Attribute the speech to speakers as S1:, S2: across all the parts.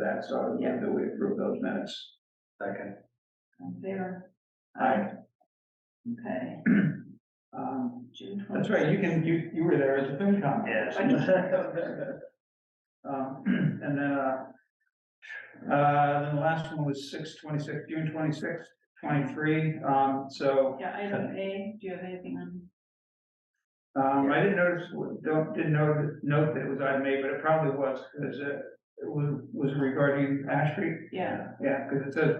S1: that, so I would move that we approve those minutes.
S2: Second.
S3: on favor?
S1: Aye.
S3: Okay, um, June twenty.
S1: That's right, you can, you, you were there as a FinCom.
S2: Yes.
S1: Um, and then, uh, uh, then the last one was six twenty-six, June twenty-sixth, twenty-three, um, so,
S3: Yeah, item A, do you have anything on?
S1: um, I didn't notice, don't, didn't note, note that it was item A, but it probably was, because it it was, was regarding Ash Street.
S3: Yeah,
S1: Yeah, because it says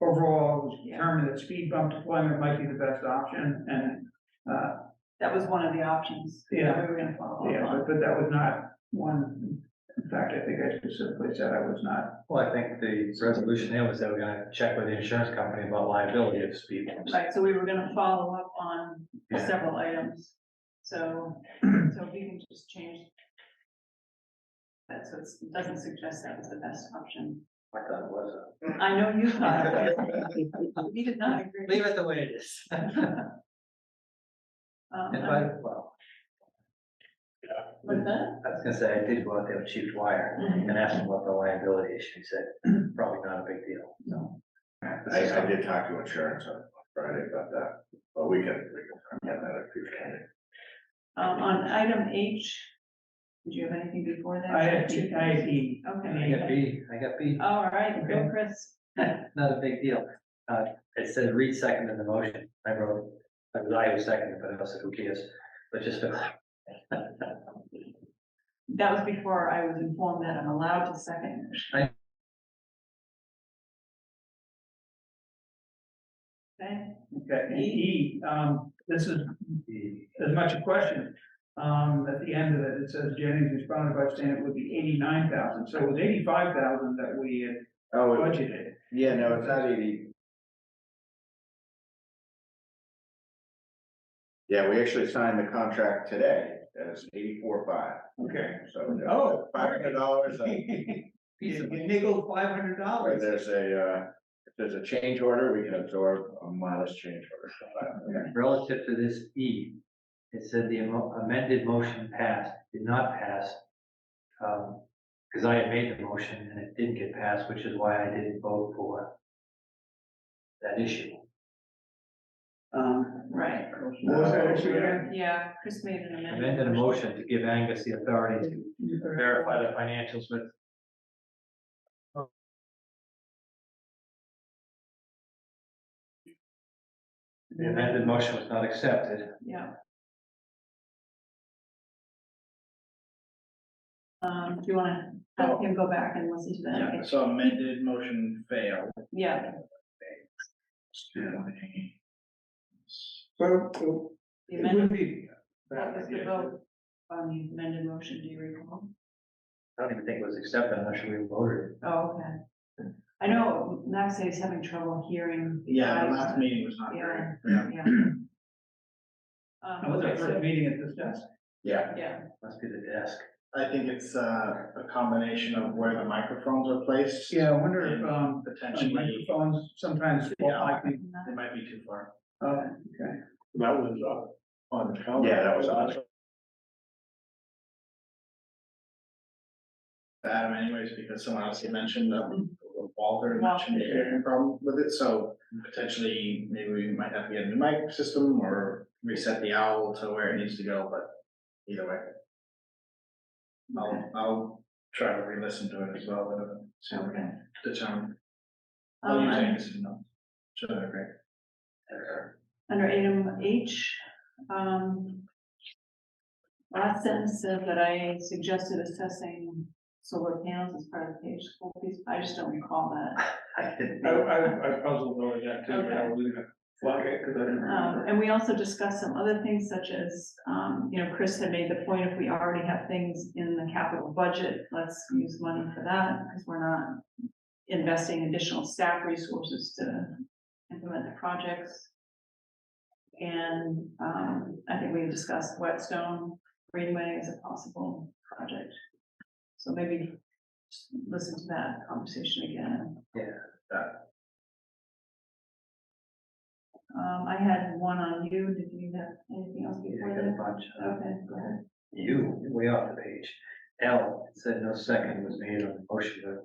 S1: overall, it was
S3: Yeah.
S1: determined that speed bump deployment might be the best option and, uh,
S3: that was one of the options. that
S1: Yeah.
S3: We were gonna follow up
S1: yeah,
S3: on.
S1: but, but that was not one, in fact, I think I specifically said I was not.
S2: Well, I think the resolution here was that we're gonna check with the insurance company about liability of speed bumps.
S3: Right, so we were gonna follow up on
S2: Yeah.
S3: several items, so, so we can just change. That, so it's- it doesn't suggest that was the best option.
S2: I thought it was.
S3: I know you thought, it was. we did not agree.
S2: Leave it the way it is. And
S3: Um,
S2: by, well,
S3: With that,
S2: I was gonna say, I did go out there with Chief Dwyer and ask him about the liability issue. He said, probably not a big deal. No.
S4: I, I did talk to insurance on Friday about that, but we can, we can, yeah, that if you can.
S3: um, on item H, did you have anything before that?
S1: I had, I had E.
S2: I got
S3: Okay,
S2: B, I got B,
S3: all right, go
S1: Okay.
S3: Chris,
S2: not a big deal. Uh, it said Reed seconded the motion. I wrote, I was I who seconded, but I said, who cares? But just to.
S3: that was before I was informed that I'm allowed to second.
S2: I-
S3: Okay.
S1: Okay, and E, um, this is as much a question. Um, at the end of it, it says Jennings responded by saying it would be eighty-nine thousand, so it was eighty-five thousand that we had
S4: Oh,
S1: budgeted.
S4: yeah, no, it's not eighty. Yeah, we actually signed the contract today, it's eighty-four five,
S1: Okay.
S4: so.
S1: Oh,
S4: Five hundred dollars, uh,
S1: You you nickel five hundred dollars.
S4: there's a, uh, if there's a change order, we can absorb a modest change order.
S2: Relative to this E, it said the amo- amended motion passed, did not pass. Um, because I had made the motion and it didn't get passed, which is why I didn't vote for that issue.
S1: Um,
S3: Right,
S1: what was that issue again?
S3: yeah, Chris made an amendment.
S2: Amended a motion to give Angus the authority to verify the financials with the amended motion was not accepted.
S3: Yeah. Um, do you wanna have him go back and listen to that?
S1: so amended motion failed.
S3: Yeah,
S1: So, so
S3: the
S1: it would
S3: amendment,
S1: be.
S3: what was the vote on the amended motion, do you recall?
S2: I don't even think it was accepted, I'm not sure we voted.
S3: Oh, okay. I know Max is having trouble hearing.
S5: Yeah, the
S3: guys.
S5: last meeting was not very,
S3: Yeah,
S5: yeah.
S3: yeah. Um,
S1: That was our
S3: okay, so-
S1: first meeting at this desk.
S4: Yeah,
S3: Um, Yeah,
S2: Must be the desk.
S5: I think it's uh, a combination of where the microphones are placed.
S1: Yeah, I wonder if, um,
S5: Potentially, they
S1: microphones sometimes fall
S5: Yeah.
S1: like the-
S3: not-
S5: might be too far.
S1: uh,
S5: That was on the count.
S4: yeah, that was awesome.
S5: Adam anyways, because someone else had mentioned, um, Walter mentioned a hearing problem with it, so potentially maybe we might have to get a new mic system or reset the owl to where it needs to go, but either way. I'll, I'll try to re-listen to it as well, and see if we
S3: okay.
S5: can determine. I'll
S3: Um,
S5: use
S3: un-
S5: Angus' notes. Sure, they're great.
S3: under item H, um. Last sentence said that I suggested assessing solar panels as part of the page school piece, I just don't recall that.
S2: I didn't.
S1: I, I, I puzzled over that too, but I was gonna flag it because I didn't
S3: Um,
S1: remember.
S3: and we also discussed some other things such as, um, you know, Chris had made the point, if we already have things in the capital budget, let's use money for that, because we're not. Investing additional staff resources to implement the projects. And, um, I think we discussed Whetstone Greenway as a possible project. So maybe just listen to that conversation again. Um, I had one on you, did you have anything else
S2: Yeah,
S3: before
S2: I got a
S3: that?
S2: bunch. uh,
S3: Okay, go ahead.
S2: You, way off the page. L, it said no second was made on the motion, but it was.